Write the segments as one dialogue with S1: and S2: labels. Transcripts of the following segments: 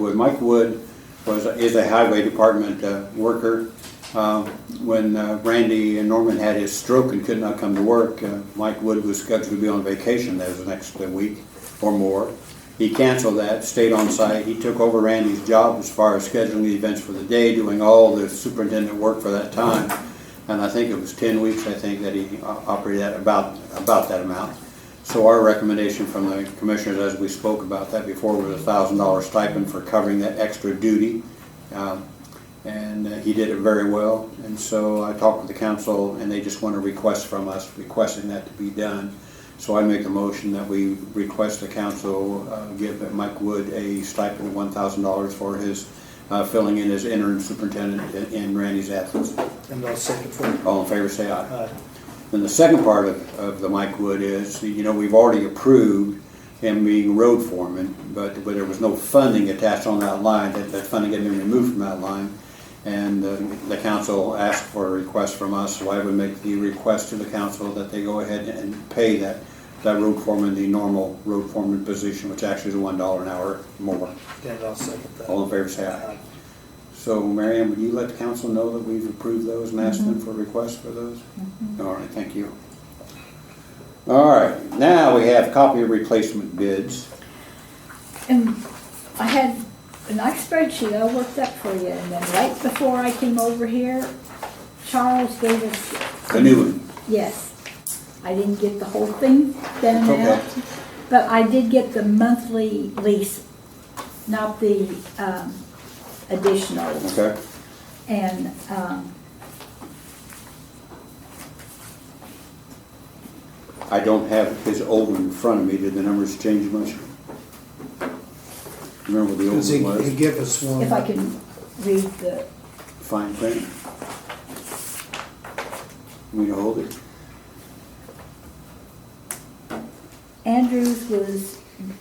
S1: Wood. Mike Wood was, is a highway department uh, worker. Uh, When uh, Randy and Norman had his stroke and could not come to work, uh, Mike Wood was scheduled to be on vacation there the next uh, week or more. He canceled that, stayed on site. He took over Randy's job as far as scheduling the events for the day, doing all the superintendent work for that time. And I think it was ten weeks, I think, that he o- operated at about, about that amount. So our recommendation from the commissioners, as we spoke about that before, was a thousand dollar stipend for covering that extra duty. Um, And uh, he did it very well, and so I talked with the council, and they just want a request from us, requesting that to be done. So I make a motion that we request the council uh, give Mike Wood a stipend of one thousand dollars for his uh, filling in as interim superintendent in- in Randy's absence.
S2: And I'll second for uh, it.
S1: All in favor, say aye.
S2: Aye.
S1: Then the second part of, of the Mike Wood is, you know, we've already approved him being road foreman, but, but there was no funding attached on that line, that, that funding had been removed from that line. And uh, the council asked for a request from us, so I would make the request to the council that they go ahead and pay that, that road foreman, the normal road foreman position, which actually is one dollar an hour more.
S2: And I'll second that. Uh,
S1: All in favor, say aye. So Marianne, would you let the council know that we've approved those and asked them for requests for those? All right, thank you. All right, now we have copy of replacement bids.
S3: And I had a nice spreadsheet, I worked up for you, and then right before I came over here, Charles gave us.
S1: The new one.
S3: Yes. I didn't get the whole thing down
S1: It's
S3: now,
S1: okay.
S3: but I did get the monthly lease, not the, um, additional.
S1: Okay,
S3: And, um,
S1: I don't have his old one in front of me. Did the numbers change much? Remember what the
S2: Because he,
S1: old one
S2: he
S1: was?
S2: gave us one.
S3: if I can read the,
S1: Fine print. We to hold it.
S3: Andrews was,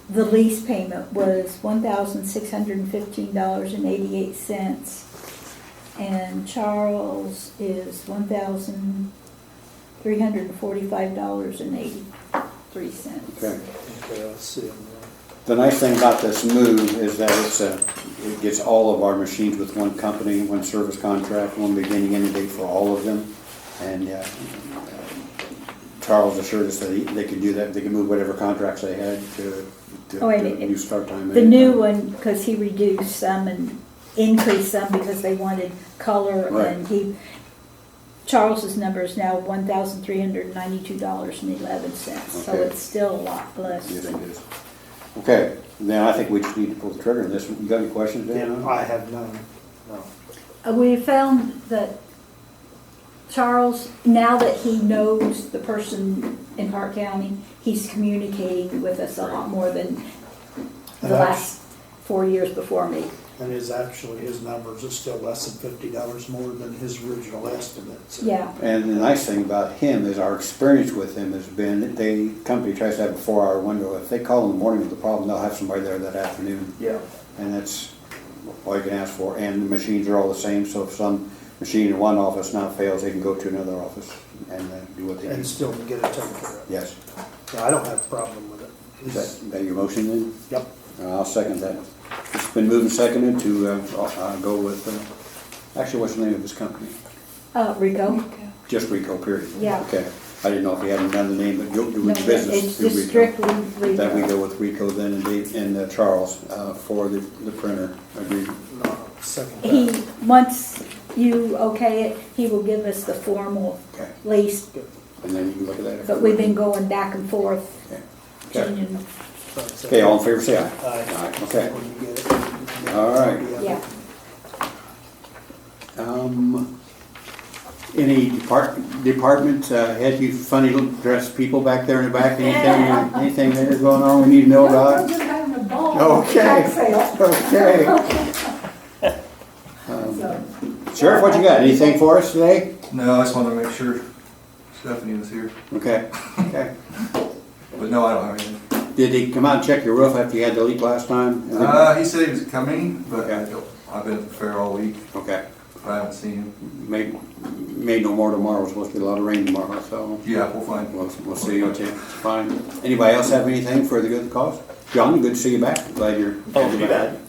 S3: the lease payment was one thousand six hundred and fifteen dollars and eighty-eight cents. And Charles is one thousand three hundred and forty-five dollars and eighty-three cents.
S1: Okay.
S2: Okay, I'll see him
S1: The nice thing about this move is that it's a, it gets all of our machines with one company, one service contract, one beginning end date for all of them. And uh, Charles assured us that he- they could do that, they could move whatever contracts they had to, to
S3: Oh, and it-
S1: to new start time.
S3: The new one, because he reduced some and increased some because they wanted color and
S1: Right.
S3: he, Charles's number is now one thousand three hundred and ninety-two dollars and eleven cents. So
S1: Okay.
S3: it's still a lot less.
S1: Yes, it is. Okay, then I think we just need to pull the trigger on this. one. You got any questions, Dan?
S2: then. I have none, no.
S3: Uh, We found that Charles, now that he knows the person in Park County, he's communicating with us a lot more than the
S2: And that's-
S3: last four years before me.
S2: And his, actually, his numbers are still less than fifty dollars more than his original estimate. so-
S3: Yeah,
S1: And the nice thing about him is our experience with him has been, that they, company tries to have a four-hour window. If they call in the morning with a problem, they'll have somebody there that afternoon.
S2: Yeah.
S1: And that's all you can ask for. And the machines are all the same, so if some machine in one office now fails, they can go to another office and uh, do what they
S2: And
S1: need.
S2: still get it taken care of.
S1: Yes.
S2: Yeah, I don't have a problem with it.
S1: Is that, that your motion then?
S2: Yep.
S1: Uh, I'll second that. It's been moved and seconded to, uh, uh, go with, uh, actually, what's the name of this company?
S3: uh, Rico?
S1: Just Rico, period?
S3: Yeah.
S1: Okay. I didn't know if we had another name, but you're doing
S3: No,
S1: business
S3: It's
S1: through
S3: just
S1: Rico.
S3: strictly
S1: That we
S3: Rico.
S1: go with Rico then and Dave, and uh, Charles, uh, for the, the printer agreement.
S2: No, Second. that.
S3: He, once you okay it, he will give us the formal
S1: Okay.
S3: lease,
S1: And then you can look at that. if
S3: but
S1: you
S3: we've
S1: want.
S3: been going back and forth,
S1: Okay. Okay.
S3: changing,
S1: Okay, all in favor, say aye.
S2: Aye.
S1: Aye, okay.
S2: Uh, When you get it, you can-
S1: All right.
S3: yeah.
S1: Um, any depart, department, uh, had you funny little dressed people back there in the back, anything, uh, anything there going on we need to know
S4: No,
S1: about?
S4: we're just having a ball.
S1: Okay.
S4: Tax sale.
S1: Okay. Um,
S4: So,
S1: Sheriff, what you got, anything for us today?
S5: No, I just wanted to make sure Stephanie was here.
S1: Okay, okay.
S5: But no, I don't have anything.
S1: Did he come out and check your roof after you had the leak last time?
S5: Uh, he said he was coming, but I
S1: Okay.
S5: don't, I've been at the fair all week.
S1: Okay,
S5: I haven't seen him.
S1: may, may no more tomorrow, it's supposed to be a lot of rain tomorrow, so
S5: Yeah, we'll find him.
S1: we'll, we'll see, okay, fine. Anybody else have anything for the good cause? John, good to see you back, glad you're.
S6: Oh, too bad.